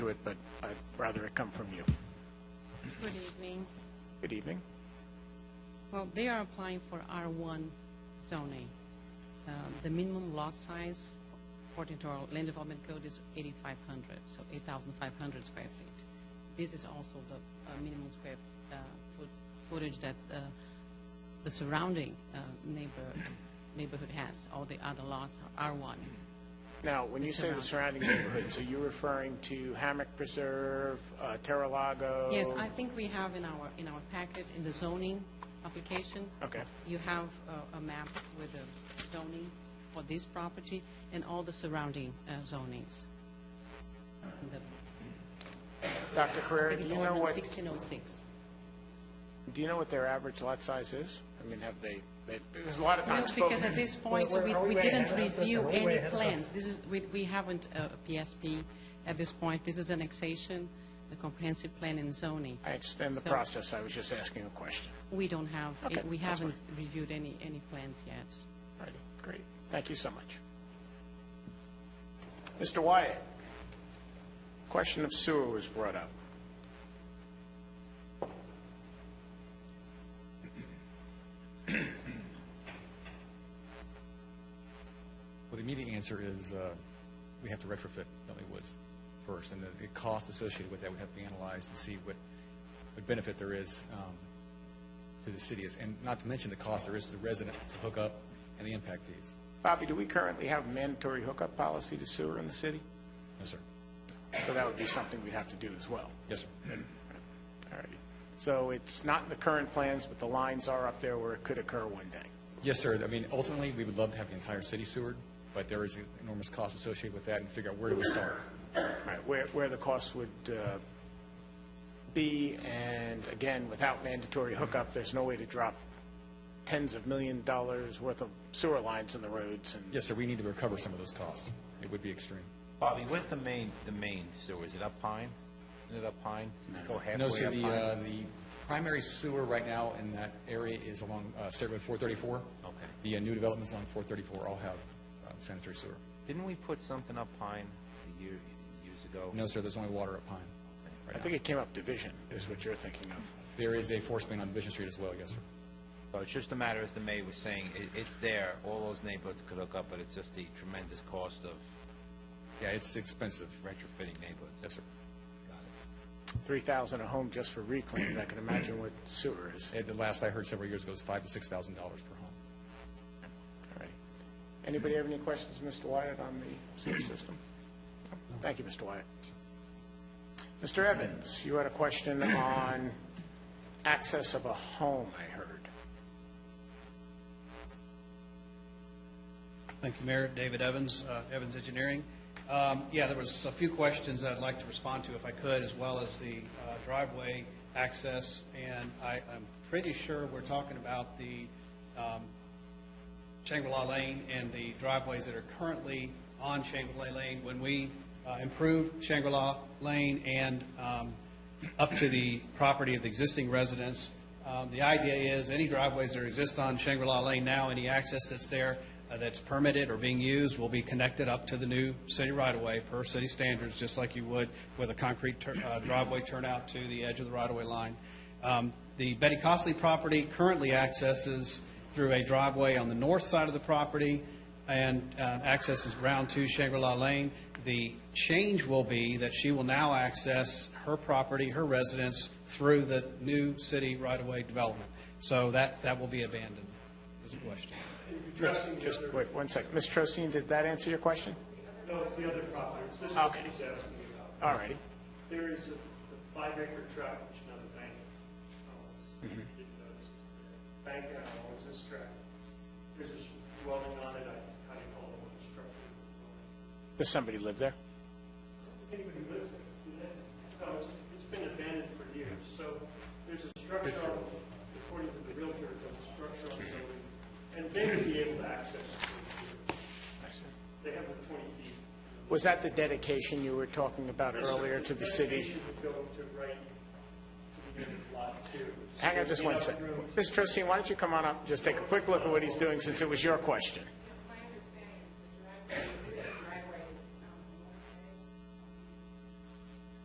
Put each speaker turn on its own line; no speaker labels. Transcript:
it, but I'd rather it come from you.
Good evening.
Good evening.
Well, they are applying for R1 zoning. Um, The minimum lot size according to our land development code is 8,500, so 8,500 square feet. This is also the uh, minimum square uh, foot- footage that uh, the surrounding uh, neighbor neighborhood has. All the other lots are R1.
Now, when you say the surrounding neighborhoods, are you referring to Hammock Preserve, uh, Terra Lago?
Yes, I think we have in our, in our packet, in the zoning application.
Okay.
You have a, a map with the zoning for this property and all the surrounding uh, zonings. And the-
Dr. Carrera, do
It's
you know
ordinance
what,
1606.
do you know what their average lot size is? I mean, have they, they- there's a lot of
No,
times spoken.
because at this point,
Wait, wait,
we,
are we
we
way
didn't
ahead of us?
review
Are we way
any
ahead of us?
plans. This is, we, we haven't uh, a PSP at this point. This is an annexation, a comprehensive plan and zoning.
I understand the
So-
process, I was just asking a question.
We don't have,
Okay,
we
that's
haven't reviewed any, any plans yet.
All righty, great, thank you so much. Mr. Wyatt, question of sewer was brought up.
Well, the immediate answer is uh, we have to retrofit Bentley Woods first, and the, the cost associated with that would have to be analyzed and see what, what benefit there is um, to the city, and not to mention the cost there is to the resident to hook up and the impact fees.
Bobby, do we currently have mandatory hookup policy to sewer in the city?
No, sir.
So that would be something we'd have to do as well.
Yes, sir.
All righty. So it's not in the current plans, but the lines are up there where it could occur one day.
Yes, sir. I mean, ultimately, we would love to have the entire city sewered, but there is enormous cost associated with that, and figure out where do we start.
All right, where, where the costs would uh, be, and again, without mandatory hookup, there's no way to drop tens of million dollars worth of sewer lines in the roads and
Yes, sir. We need to recover some of those costs. It would be extreme.
Bobby, where's the main, the main sewer? Is it up Pine? Isn't it up Pine? Does it Go halfway
No, so
up
the,
Pine?
uh, the primary sewer right now in that area is along uh, State Road 434.
Okay.
The uh, new developments on 434 all have uh, sanitary sewer.
Didn't we put something up Pine a year, years ago?
No, sir, there's only water at Pine.
I think it came up division, is what you're thinking of.
There is a force main on Division Street as well, yes, sir.
So it's just a matter, as the mayor was saying, it, it's there. All those neighborhoods could hook up, but it's just the tremendous cost of
Yeah, it's expensive.
retrofitting neighborhoods.
Yes, sir.
3,000 a home just for reclaim, I can imagine what sewer is.
At the last I heard several years ago, it was five to $6,000 per home.
All right. Anybody have any questions, Mr. Wyatt, on the sewer system? Thank you, Mr. Wyatt. Mr. Evans, you had a question on access of a home, I heard.
Thank you, Mayor. David Evans, uh, Evans Engineering. Um, Yeah, there was a few questions that I'd like to respond to if I could, as well as the uh, driveway access. And I, I'm pretty sure we're talking about the um, Shangri-La Lane and the driveways that are currently on Shangri-La Lane. When we uh, improved Shangri-La Lane and um, up to the property of the existing residents, um, the idea is any driveways that exist on Shangri-La Lane now, any access that's there uh, that's permitted or being used will be connected up to the new city right-of-way per city standards, just like you would with a concrete tur- uh, driveway turnout to the edge of the right-of-way line. Um, The Betty Costley property currently accesses through a driveway on the north side of the property and uh, accesses Round 2 Shangri-La Lane. The change will be that she will now access her property, her residence, through the new city right-of-way development. So that, that will be abandoned, is the question.
Just wait one second. Ms. Trocine, did that answer your question?
No, it's the other property. It's this one
Okay.
she's asking me about.
All righty.
There is a a five-acre tract which another bank owns.
Mm-hmm.
Didn't notice it. Bank now owns this tract. There's a sh- dwelling on it, I kind of call it a structure.
Does somebody live there?
Anybody lives there? do they? No, it's, it's been abandoned for years, so there's a structure, on- according to the realtor, there's a structure on the building, and they would be able to access it.
I see.
They have the twenty feet.
Was that the dedication you were talking about earlier to the city?
Dedication would go to right to the end of lot two.
Hang on just one second. Ms. Trocine, why don't you come on up, and just take a quick look at what he's doing, since it was your question?